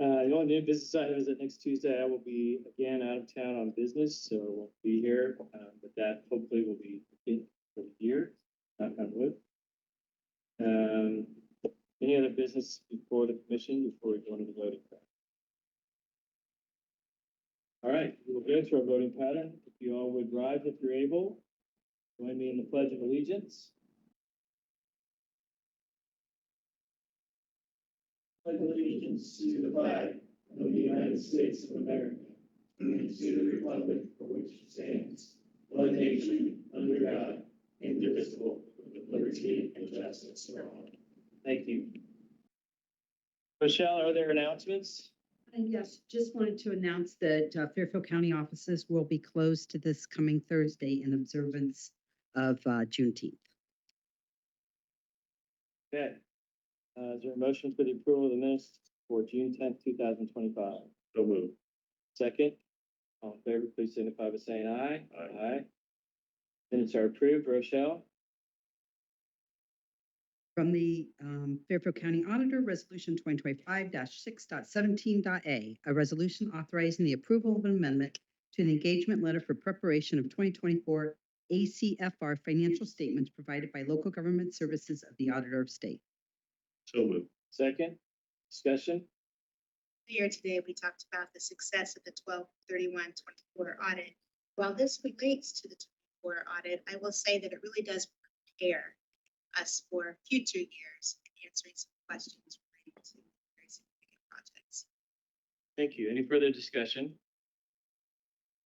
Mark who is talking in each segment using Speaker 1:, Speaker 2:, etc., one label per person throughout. Speaker 1: Uh, the only new business I have is that next Tuesday I will be again out of town on business, so I won't be here, uh, but that hopefully will be in for the year, knock on wood. Um, any other business before the commission, before we go into the voting? pattern? All right, we'll go to our voting pattern. If you all would rise if you're able, join me in the pledge of allegiance.
Speaker 2: pledge allegiance to the flag of the United States of America, and to the republic for which it stands, one nation, under God, indivisible, with liberty and justice for all.
Speaker 1: Thank you. Michelle, are there announcements?
Speaker 3: And yes, just wanted to announce that uh, Fairfield County offices will be closed to this coming Thursday in observance of uh, Juneteenth.
Speaker 1: Okay. Uh, is there a motion for the approval of the minutes for June tenth, two thousand twenty-five?
Speaker 2: So moved.
Speaker 1: Second, all in favor, please signify by saying aye. Aye. Minutes are approved. Rochelle?
Speaker 3: From the um, Fairfield County Auditor, Resolution 2025-6.17.a, a resolution authorizing the approval of an amendment to an engagement letter for preparation of 2024 ACFR financial statements provided by local government services of the Auditor of State.
Speaker 2: So moved.
Speaker 1: Second, discussion?
Speaker 4: Earlier today, we talked about the success of the 12 31 24 audit. While this relates to the twenty-four audit, I will say that it really does prepare us for future years and answering some questions related to very significant projects.
Speaker 1: Thank you. Any further discussion?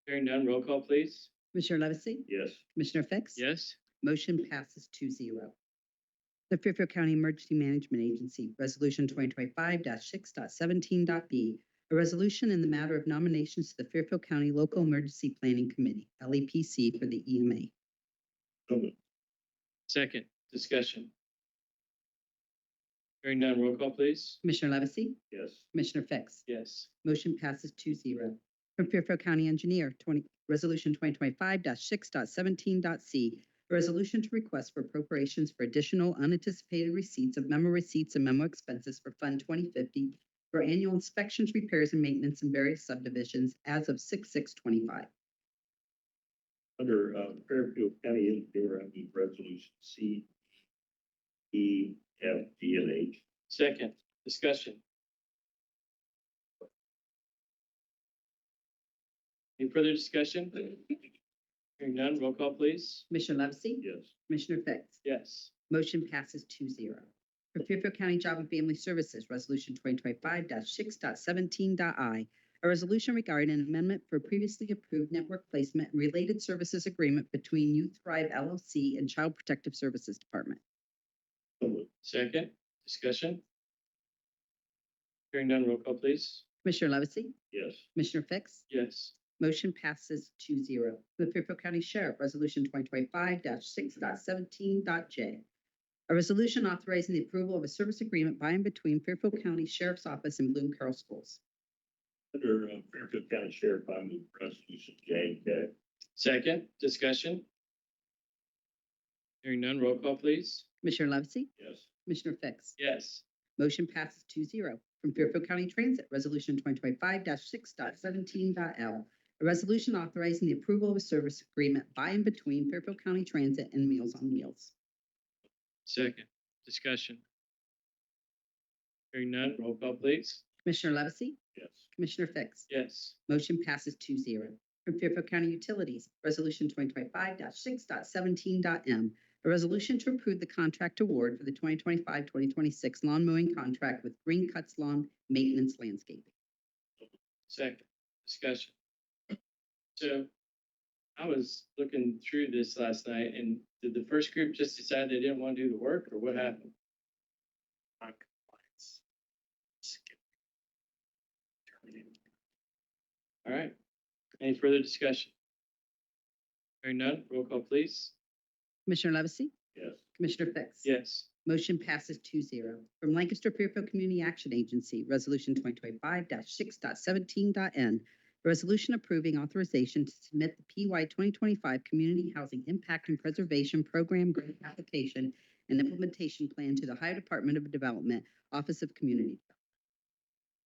Speaker 1: Hearing none, roll call, please.
Speaker 3: Commissioner Levesey?
Speaker 2: Yes.
Speaker 3: Commissioner Fix?
Speaker 1: Yes.
Speaker 3: Motion passes 2-0. The Fairfield County Emergency Management Agency, Resolution twenty twenty-five 617b a resolution in the matter of nominations to the Fairfield County Local Emergency Planning Committee, LEPC, for the E EMA.
Speaker 2: So moved.
Speaker 1: Second, discussion? Hearing none, roll call, please.
Speaker 3: Commissioner Levesey?
Speaker 2: Yes.
Speaker 3: Commissioner Fix?
Speaker 1: Yes.
Speaker 3: Motion passes 2-0. From Fairfield County Engineer, twenty, Resolution twenty twenty-five 617c a resolution to request for appropriations for additional unanticipated receipts of memo receipts and memo expenses for Fund twenty fifty for annual inspections, repairs, and maintenance in various subdivisions as of six, six twenty-five.
Speaker 2: Under, uh, Fairfield County Engineer, I move resolution C, E, F, G, and H.
Speaker 1: Second, discussion? Any further discussion? Hearing none, roll call, please.
Speaker 3: Commissioner Levesey?
Speaker 2: Yes.
Speaker 3: Commissioner Fix?
Speaker 1: Yes.
Speaker 3: Motion passes 2-0. For Fairfield County Job and Family Services, Resolution twenty twenty-five 617i a resolution regarding an amendment for previously approved network placement and related services agreement between Youth Thrive LLC and Child Protective Services Department.
Speaker 2: So moved.
Speaker 1: Second, discussion? Hearing none, roll call, please.
Speaker 3: Commissioner Levesey?
Speaker 2: Yes.
Speaker 3: Commissioner Fix?
Speaker 1: Yes.
Speaker 3: Motion passes 2-0. The Fairfield County Sheriff, Resolution twenty twenty-five 617j A resolution authorizing the approval of a service agreement by and between Fairfield County Sheriff's Office and Bloom Carroll Schools.
Speaker 2: Under uh, Fairfield County Sheriff, I move resolution J and K.
Speaker 1: Second, discussion? Hearing none, roll call, please.
Speaker 3: Commissioner Levesey?
Speaker 2: Yes.
Speaker 3: Commissioner Fix?
Speaker 1: Yes.
Speaker 3: Motion passes 2-0 From Fairfield County Transit, Resolution twenty twenty-five 617l a resolution authorizing the approval of a service agreement by and between Fairfield County Transit and Meals on Wheels.
Speaker 1: Second, discussion? Hearing none, roll call, please.
Speaker 3: Commissioner Levesey?
Speaker 2: Yes.
Speaker 3: Commissioner Fix?
Speaker 1: Yes.
Speaker 3: Motion passes 2-0 From Fairfield County Utilities, Resolution twenty twenty-five 617m a resolution to approve the contract award for the 2025-2026 lawn mowing contract with Green Cuts Lawn Maintenance Landscaping.
Speaker 1: Second, discussion. So I was looking through this last night and did the first group just decide they didn't want to do the work or what happened?
Speaker 2: Non-compliance. Skip. Terminated.
Speaker 1: All right. Any further discussion? Hearing none, roll call, please.
Speaker 3: Commissioner Levesey?
Speaker 2: Yes.
Speaker 3: Commissioner Fix?
Speaker 1: Yes.
Speaker 3: Motion passes 2-0 From Lancaster Fairfield Community Action Agency, Resolution twenty twenty-five 617n resolution approving authorization to submit the PY twenty twenty-five Community Housing Impact and Preservation Program Grant Application and Implementation Plan to the Ohio Department of Development, Office of Community